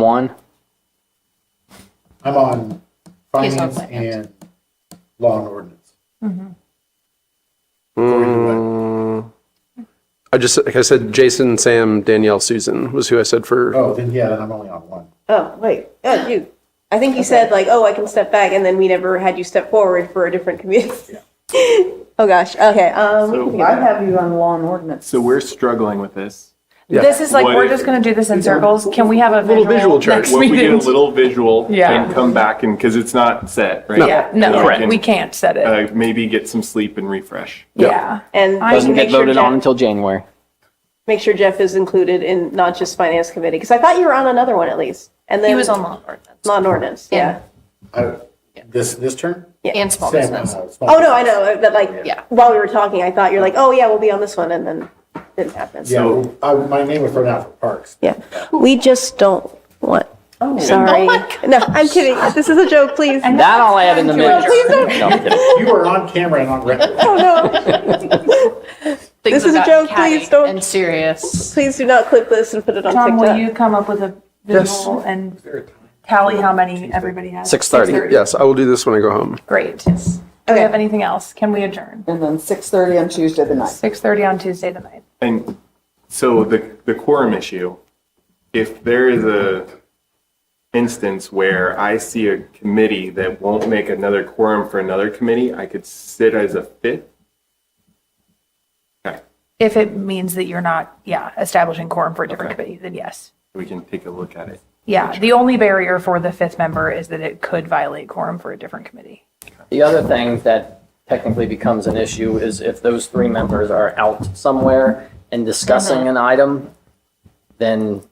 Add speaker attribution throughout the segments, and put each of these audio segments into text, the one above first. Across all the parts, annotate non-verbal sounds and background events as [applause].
Speaker 1: One,
Speaker 2: I'm on
Speaker 3: He's on
Speaker 2: finance
Speaker 3: finance.
Speaker 2: and law and ordinance.
Speaker 4: I just, like I said, Jason, Sam, Danielle, Susan was who I said for.
Speaker 2: Oh, then yeah, then I'm only on one.
Speaker 5: Oh, wait, oh, you, I think you said like, oh, I can step back, and then we never had you step forward for a different community. [laughs] Oh, gosh, okay, um. we can get
Speaker 6: I
Speaker 5: that.
Speaker 6: have you on law and ordinance.
Speaker 7: So we're struggling with this.
Speaker 6: This is like,
Speaker 7: What
Speaker 6: we're
Speaker 7: if-
Speaker 6: just gonna do this in circles. Can we have a
Speaker 4: Little visual
Speaker 6: visual
Speaker 4: chart.
Speaker 6: next
Speaker 4: What
Speaker 7: What if we get a
Speaker 6: meeting?
Speaker 7: little visual
Speaker 6: Yeah.
Speaker 7: and come back and, because it's not set, right?
Speaker 6: Yeah, [laughs] no,
Speaker 7: Correct.
Speaker 6: we can't set it.
Speaker 7: Uh, maybe get some sleep and refresh.
Speaker 6: Yeah.
Speaker 5: And
Speaker 6: I-
Speaker 5: just
Speaker 1: doesn't
Speaker 5: make
Speaker 1: get
Speaker 5: sure
Speaker 1: voted on
Speaker 5: Jeff,
Speaker 1: until January.
Speaker 5: make sure Jeff is included in not just finance committee, because I thought you were on another one at least, and then.
Speaker 3: He was on law ordinance.
Speaker 5: Law and ordinance, yeah.
Speaker 2: I, this, this term?
Speaker 3: And small
Speaker 2: Sam,
Speaker 3: business.
Speaker 2: uh, small
Speaker 5: Oh, no, I
Speaker 2: business.
Speaker 5: know, but like,
Speaker 3: Yeah.
Speaker 5: while we were talking, I thought you're like, oh, yeah, we'll be on this one, and then didn't happen.
Speaker 2: Yeah, well, I, my name was thrown out for parks.
Speaker 5: Yeah, we just don't want,
Speaker 3: Oh
Speaker 5: sorry.
Speaker 3: my
Speaker 5: No, I'm kidding, this is a joke, please. No,
Speaker 1: That I'll add in the minutes.
Speaker 5: please don't,
Speaker 1: No, I'm kidding.
Speaker 2: You are on camera and on record.
Speaker 3: [laughs]
Speaker 5: oh, no.
Speaker 3: Things
Speaker 5: is
Speaker 3: have gotten
Speaker 5: a joke, please
Speaker 3: catty
Speaker 5: don't-
Speaker 3: And serious.
Speaker 5: Please do not clip this and put it on
Speaker 6: Tom, will
Speaker 5: TikTok.
Speaker 6: you come up with a visual and tally how many everybody has?
Speaker 1: 6:30.
Speaker 4: Yes, I will do this when I go home.
Speaker 6: Great. Do we have anything else? Can we adjourn?
Speaker 8: And then 6:30 on Tuesday the ninth.
Speaker 6: 6:30 on Tuesday the night.
Speaker 7: And so the, the quorum issue, if there is a instance where I see a committee that won't make another quorum for another committee, I could sit as a fifth. Okay,
Speaker 6: If it means that you're not, yeah, establishing quorum for a different committee, then yes.
Speaker 7: we can take a look at it.
Speaker 6: Yeah, the only barrier for the fifth member is that it could violate quorum for a different committee.
Speaker 1: The other thing that technically becomes an issue is if those three members are out somewhere and discussing an item, then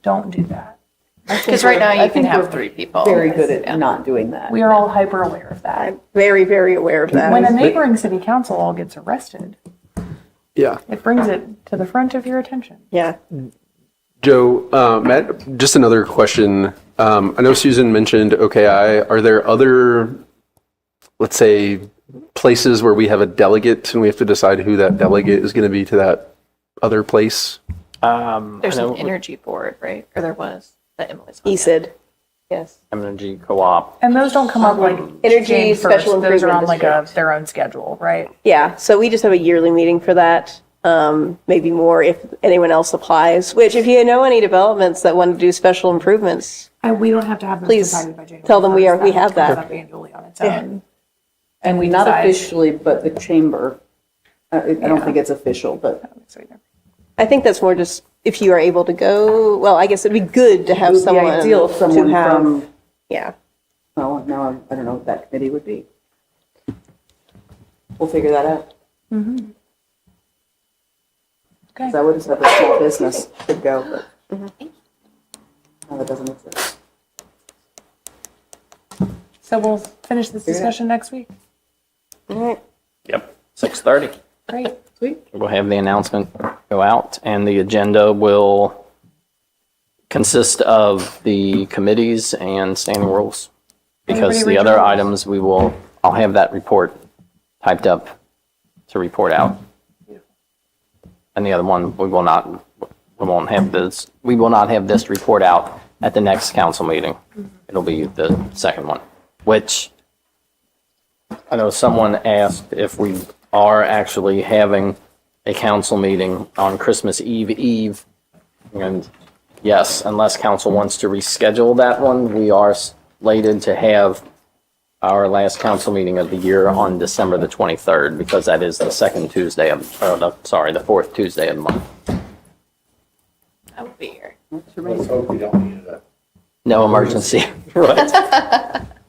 Speaker 6: Don't do that.
Speaker 3: Because right now
Speaker 8: I
Speaker 3: you can
Speaker 8: think
Speaker 3: have
Speaker 8: we're
Speaker 3: three people.
Speaker 8: Very good at not doing that.
Speaker 6: We are all hyper aware of that.
Speaker 5: I'm very, very aware of
Speaker 6: When a
Speaker 5: that.
Speaker 6: neighboring city council all gets arrested,
Speaker 4: Yeah.
Speaker 6: it brings it to the front of your attention.
Speaker 5: Yeah.
Speaker 4: Joe, uh, Matt, just another question. Um, I know Susan mentioned OKI. Are there other, let's say, places where we have a delegate and we have to decide who that delegate is going to be to that other place?
Speaker 1: um, I
Speaker 3: There's
Speaker 1: know
Speaker 3: an energy board, right? Or there was, that Emily's on.
Speaker 5: He said, yes.
Speaker 1: energy co-op.
Speaker 6: And those don't come up like
Speaker 5: Energy
Speaker 6: Jane first.
Speaker 5: Special
Speaker 6: Those are on
Speaker 5: Improvement
Speaker 6: like a, their own schedule, right?
Speaker 5: Yeah, so we just have a yearly meeting for that. Um, maybe more if anyone else applies, which if you know any developments that want to do special improvements,
Speaker 6: And we don't have to have them
Speaker 5: Please
Speaker 6: decided by January.
Speaker 5: tell them we are- we
Speaker 6: 1st.
Speaker 5: have
Speaker 6: That
Speaker 5: that.
Speaker 6: comes up Annually on its own.
Speaker 8: And we not
Speaker 6: decide.
Speaker 8: officially, but the chamber, uh, I I don't think it's official, but
Speaker 6: So we don't-
Speaker 5: I think that's more just if you are able to go, well, I guess it'd be good to
Speaker 8: it
Speaker 5: have
Speaker 8: would be
Speaker 5: someone
Speaker 8: ideal if someone
Speaker 5: to have.
Speaker 8: from,
Speaker 5: Yeah,
Speaker 8: well, now I'm- I don't know what that committee would be. We'll figure that out.
Speaker 6: Okay.
Speaker 8: Because I would have said that small business could go, but now that doesn't exist.
Speaker 6: So we'll finish this discussion next week.
Speaker 5: all right.
Speaker 1: Yep. 6:30.
Speaker 6: Great.
Speaker 8: Sweet.
Speaker 1: We'll have the announcement go out, and the agenda will consist of the committees and standing rules. Because
Speaker 6: Anybody
Speaker 1: the other
Speaker 6: rejoice?
Speaker 1: items, we will, I'll have that report typed up to report out. And the other one, we will not, we won't have this, we will not have this report out at the next council meeting. It'll be the second one, which I know someone asked if we are actually having a council meeting on Christmas Eve Eve. And yes, unless council wants to reschedule that one, we are slated to have our last council meeting of the year on December the 23rd because that is the second Tuesday of, or the, sorry, the fourth Tuesday of the month.
Speaker 3: I will be here.
Speaker 2: Let's hope we don't need it.
Speaker 1: No emergency. [laughs] Right. As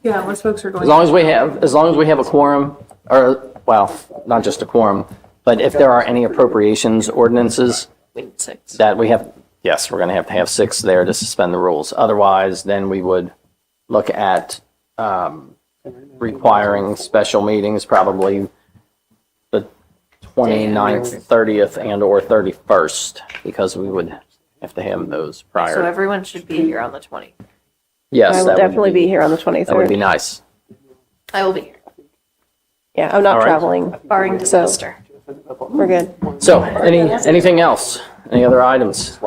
Speaker 6: Yeah, unless folks are going.
Speaker 1: long as we have, as long as we have a quorum, or, well, not just a quorum, but if there are any appropriations ordinances,
Speaker 3: We need six.
Speaker 1: that we have, yes, we're going to have to have six there to suspend the rules. Otherwise, then we would look at um, requiring special meetings probably the 29th, 30th, and/or 31st, because we would have to have those
Speaker 3: So
Speaker 1: prior.
Speaker 3: everyone should be here on the 20th.
Speaker 1: Yes,
Speaker 5: I will
Speaker 1: that would
Speaker 5: definitely be here on the
Speaker 1: That would be
Speaker 5: 23rd.
Speaker 1: nice.
Speaker 3: I will be here,
Speaker 5: Yeah, I'm
Speaker 1: All
Speaker 5: not
Speaker 1: right.
Speaker 5: traveling.
Speaker 3: barring
Speaker 5: So-
Speaker 3: disaster.
Speaker 5: We're good.
Speaker 1: So, any, anything else? Any other items?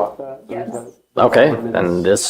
Speaker 6: Yes.
Speaker 1: Okay, then this